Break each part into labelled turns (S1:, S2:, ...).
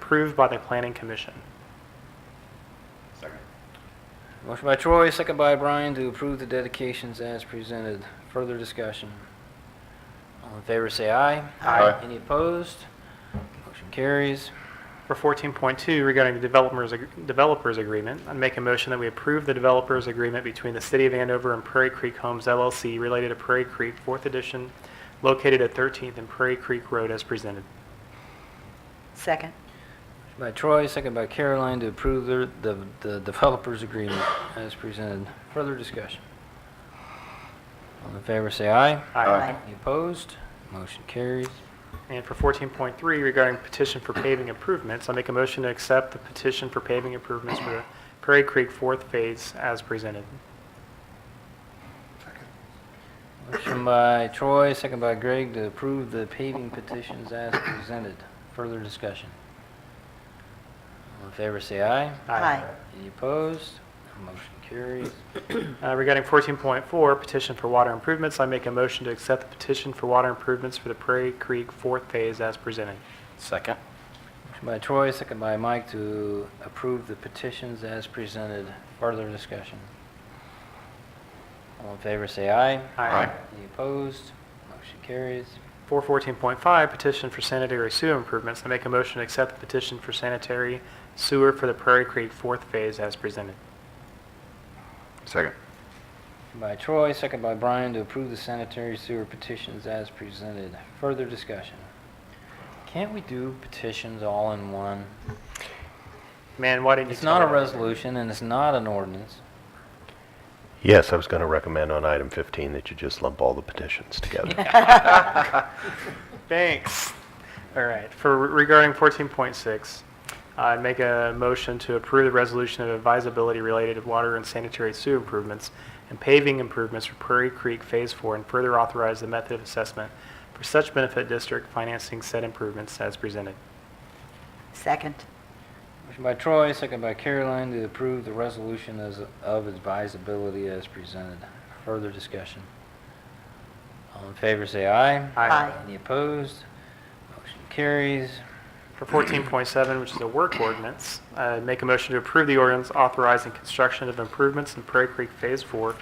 S1: approved by the planning commission.
S2: Second.
S3: Motion by Troy, second by Brian to approve the dedications as presented. Further discussion. All in favor, say aye.
S2: Aye. Aye.
S3: Any opposed? Motion carries.
S1: For 14.2 regarding the developers, developers agreement, I'd make a motion that we approve the developers agreement between the City of Andover and Prairie Creek Homes LLC related to Prairie Creek Fourth Edition located at 13th and Prairie Creek Road as presented.
S4: Second.
S3: Motion By Troy, second by Caroline to approve the, the- the developers agreement as presented. Further discussion. All in favor, say aye.
S2: Aye.
S3: Any opposed? Motion carries.
S1: And for 14.3 regarding petition for paving improvements, I'll make a motion to accept the petition for paving improvements for the Prairie Creek Fourth Phase as presented.
S3: Motion by Troy, second by Greg to approve the paving petitions as presented. Further discussion. All in favor, say aye. Any opposed? Motion carries.
S1: Uh, Regarding 14.4, petition for water improvements, I make a motion to accept the petition for water improvements for the Prairie Creek Fourth Phase as presented.
S2: Second.
S3: Motion by Troy, second by Mike to approve the petitions as presented. Further discussion. All in favor, say aye.
S2: Aye.
S3: Any opposed? Motion carries.
S1: For 14.5, petition for sanitary sewer improvements, I make a motion to accept the petition for sanitary sewer for the Prairie Creek Fourth Phase as presented.
S2: Second.
S3: Motion By Troy, second by Brian to approve the sanitary sewer petitions as presented. Further discussion. Can't we do petitions all in one?
S1: Man, why didn't you
S3: It's
S1: tell
S3: not a
S1: me?
S3: resolution and it's not an ordinance.
S5: Yes, I was going to recommend on item 15 that you just lump all the petitions together.
S1: Thanks. All right. For regarding 14.6, I'd make a motion to approve the resolution of advisability related to water and sanitary sewer improvements and paving improvements for Prairie Creek Phase 4 and further authorize the method of assessment for such benefit district financing said improvements as presented.
S4: Second.
S3: Motion by Troy, second by Caroline to approve the resolution as of advisability as presented. Further discussion. All in favor, say aye.
S4: Aye.
S3: Any opposed? Motion carries.
S1: For 14.7, which is a work ordinance, uh, make a motion to approve the ordinance authorizing construction of improvements in Prairie Creek Phase 4,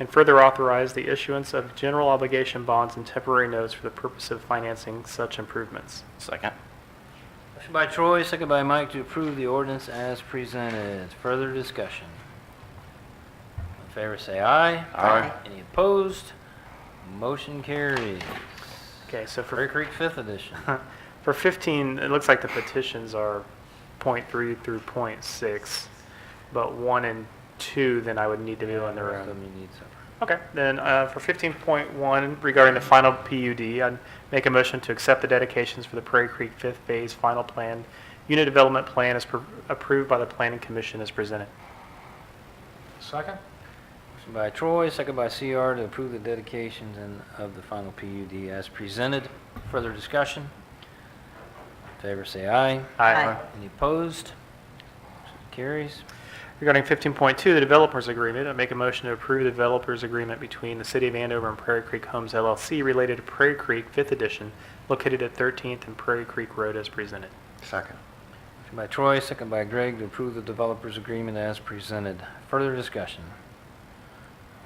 S1: and further authorize the issuance of general obligation bonds and temporary notes for the purpose of financing such improvements.
S2: Second.
S3: Motion by Troy, second by Mike to approve the ordinance as presented. Further discussion. All in favor, say aye.
S2: Aye.
S3: Any opposed? Motion carries.
S1: Okay, so
S3: Prairie
S1: for,
S3: Creek Fifth Edition.
S1: for 15, it looks like the petitions are .3 through .6, but 1 and 2, then I would need to do on their
S3: Rest
S1: own.
S3: of them you need separate.
S1: Okay, then uh, for 15.1 regarding the final PUD, I'd make a motion to accept the dedications for the Prairie Creek Fifth Phase Final Plan, Unit Development Plan as pro- approved by the Planning Commission as presented.
S2: Second.
S3: Motion by Troy, second by CR to approve the dedications and of the final PUD as presented. Further discussion? In Favor say aye.
S4: Aye.
S3: Any opposed? Motion Carries.
S1: Regarding 15.2, the Developers Agreement, I'd make a motion to approve the Developers Agreement between the City of Andover and Prairie Creek Homes LLC related to Prairie Creek Fifth Edition located at 13th and Prairie Creek Road as presented.
S2: Second.
S3: Motion by Troy, second by Greg to approve the developer's agreement as presented. Further discussion?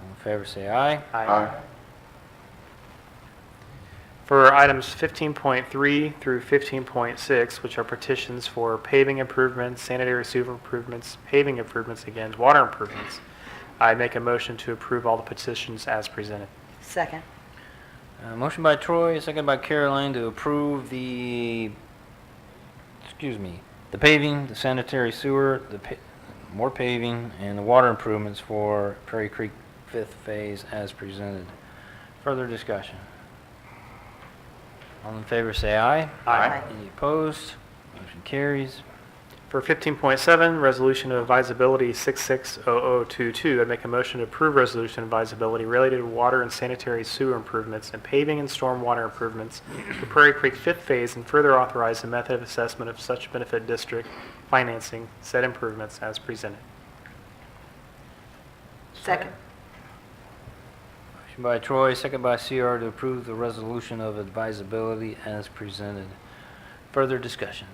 S3: All in favor say aye.
S1: For items 15.3 through 15.6, which are petitions for paving improvements, sanitary sewer improvements, paving improvements again, water improvements, I make a motion to approve all the petitions as presented.
S4: Second.
S3: Uh, Motion by Troy, second by Caroline to approve the, excuse me, the paving, the sanitary sewer, the pa- more paving, and the water improvements for Prairie Creek Fifth Phase as presented. Further discussion. All in favor, say aye.
S4: Aye.
S3: Any opposed? Motion carries.
S1: For 15.7, resolution of advisability 660022, I make a motion to approve resolution of advisability related to water and sanitary sewer improvements and paving and stormwater improvements for Prairie Creek Fifth Phase and further authorize the method of assessment of such benefit district financing said improvements as presented.
S4: Second.
S3: Motion by Troy, second by CR to approve the resolution of advisability as presented. Further discussion.